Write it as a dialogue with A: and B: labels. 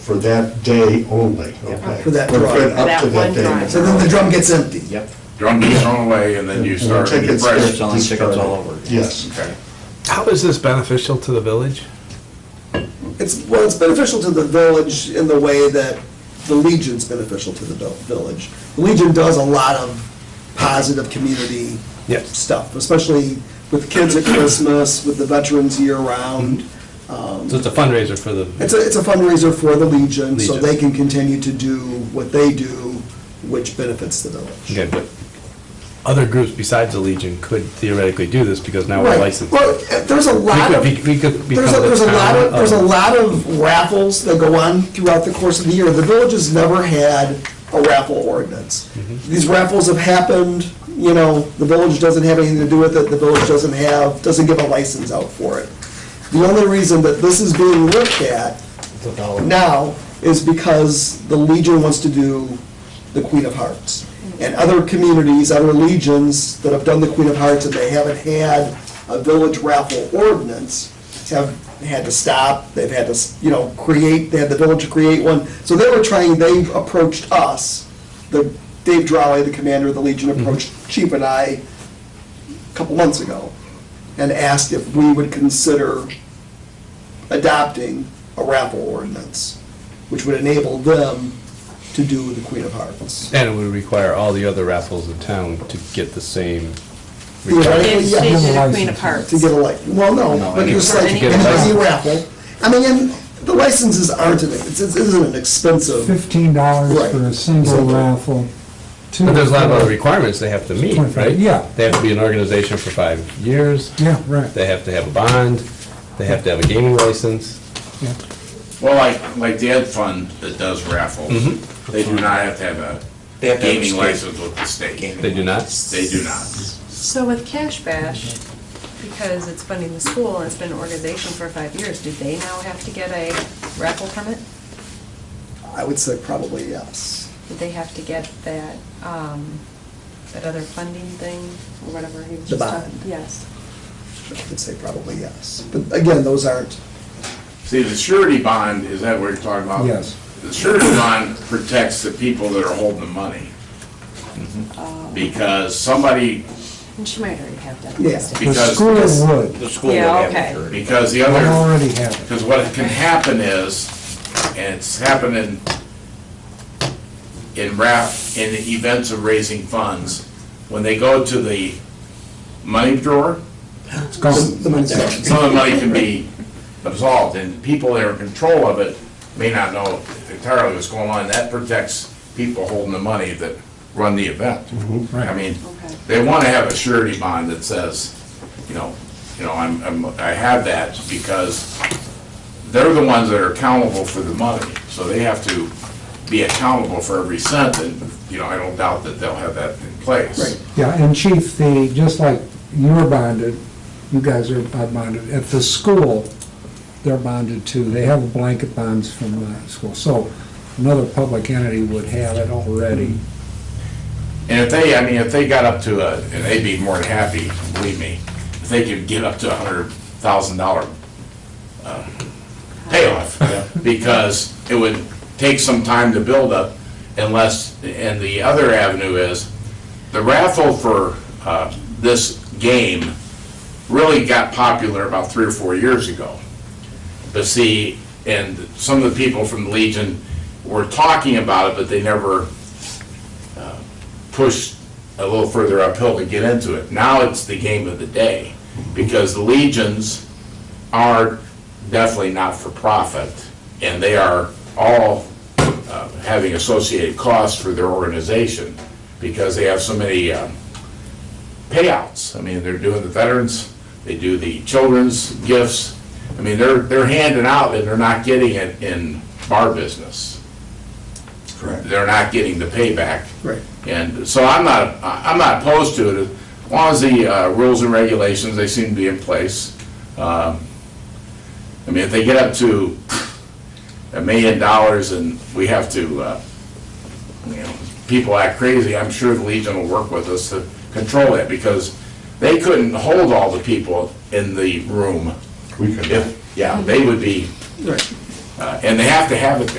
A: for that day only, okay?
B: For that
A: For-
B: drive.
A: Up to
C: That one
A: that day.
C: drive.
B: So then the drum gets empty.
D: Yep,
E: Drum gets thrown away and then you start a new
A: Tickets
E: fresh.
A: get
D: Selling tickets all
A: discarded.
D: over again.
A: Yes.
E: Okay.
F: How is this beneficial to the village?
B: It's, well, it's beneficial to the village in the way that the Legion's beneficial to the vil- village. The Legion does a lot of positive community
F: Yes.
B: stuff, especially with kids at Christmas, with the veterans year-round.
G: So it's a fundraiser for the.
B: It's a, it's a fundraiser for the Legion, so
G: Legion.
B: they can continue to do what they do, which benefits the village.
G: Okay, but other groups besides the Legion could theoretically do this because now we're
B: Right.
G: licensed.
B: Well, there's a lot
G: could
B: of,
G: be- we could
B: there's a,
G: become the
B: there's a lot of,
G: town
B: there's a
G: of-
B: lot of raffles that go on throughout the course of the year. The village has never had a raffle ordinance.
G: Mm-hmm.
B: These raffles have happened, you know, the village doesn't have anything to do with it, the village doesn't have, doesn't give a license out for it. The only reason that this is being looked at now is because the Legion wants to do the Queen of Hearts. And other communities, other legions that have done the Queen of Hearts and they haven't had a village raffle ordinance have had to stop, they've had to, you know, create, they had the village create one. So they were trying, they approached us, the, Dave Drolley, the commander of the Legion, approached Chief and I a couple months ago and asked if we would consider adopting a raffle ordinance, which would enable them to do the Queen of Hearts.
G: And it would require all the other raffles in town to get the same.
B: Theoretically,
C: It's
B: yeah,
C: stage of the Queen of Hearts.
B: to get a license, well, no,
D: No,
B: but
D: any-
B: just like
C: any-
B: any raffle. I mean, and the licenses aren't, an- it's- it isn't an expensive,
H: fifteen dollars
B: Right.
H: for a single
B: Exactly.
H: raffle.
G: But there's a lot of other requirements they have to meet, right?
H: Yeah.
G: They have to be an organization for five years.
H: Yeah, right.
G: They have to have a bond. They have to have a gaming license.
E: Well, like, like the Ed Fund that does raffles,
F: Mm-hmm.
E: they do not have to have a
D: They have to have a
E: gaming
D: state-
E: license with the state.
G: They do not.
E: They do not.
C: So with Cash Bash, because it's funding the school and it's been an organization for five years, do they now have to get a raffle permit?
B: I would say probably yes.
C: Did they have to get that, um, that other funding thing, or whatever he was
B: The
C: just talking?
B: bond.
C: Yes.
B: I would say probably yes. But again, those aren't,
E: See, the surety bond, is that what you're talking about?
H: Yes.
E: The surety bond protects the people that are holding the money.
D: Mm-hmm.
E: Because somebody,
C: And she might already have that.
B: Yeah.
C: listed.
H: The
E: Because-
H: school would,
D: the school would
C: Yeah,
D: have
C: okay.
D: insurance.
E: because the
H: they
E: other.
H: already have it.
E: Because what can happen is, and it's happening in rap, in the events of raising funds, when they go to the money drawer,
H: It's gone.
B: the money's not.
E: some of the money can be absolved, and people that are in control of it may not know entirely what's going on. That protects people holding the money that run the event. I mean,
C: Okay.
E: they want to have a surety bond that says, you know, you know, I'm, I'm, I have that because they're the ones that are accountable for the money, so they have to be accountable for every cent, and, you know, I don't doubt that they'll have that in place.
B: Right.
H: Yeah, and chief, the, just like you're bonded, you guys are bonded, at the school, they're bonded too. They have blanket bonds from the school. So another public entity would have it already.
E: And if they, I mean, if they got up to a, and they'd be more than happy, believe me, if they could get up to a hundred thousand dollar uh, payoff, because it would take some time to build up unless, and the other avenue is, the raffle for uh, this game really got popular about three or four years ago. But see, and some of the people from the Legion were talking about it, but they never pushed a little further uphill to get into it. Now it's the game of the day, because the legions are definitely not for profit, and they are all uh, having associated costs for their organization, because they have so many um, payouts. I mean, they're doing the veterans, they do the children's gifts. I mean, they're, they're handing out, and they're not getting it in bar business.
B: Correct.
E: They're not getting the payback.
B: Right.
E: And so I'm not, I- I'm not opposed to it, as long as the uh, rules and regulations, they seem to be in place. Um, I mean, if they get up to a million dollars and we have to, uh, you know, people act crazy, I'm sure the Legion will work with us to control that, because they couldn't hold all the people in the room.
A: We could.
E: If- Yeah, they would be,
B: Right.
E: uh, and they have to have it there.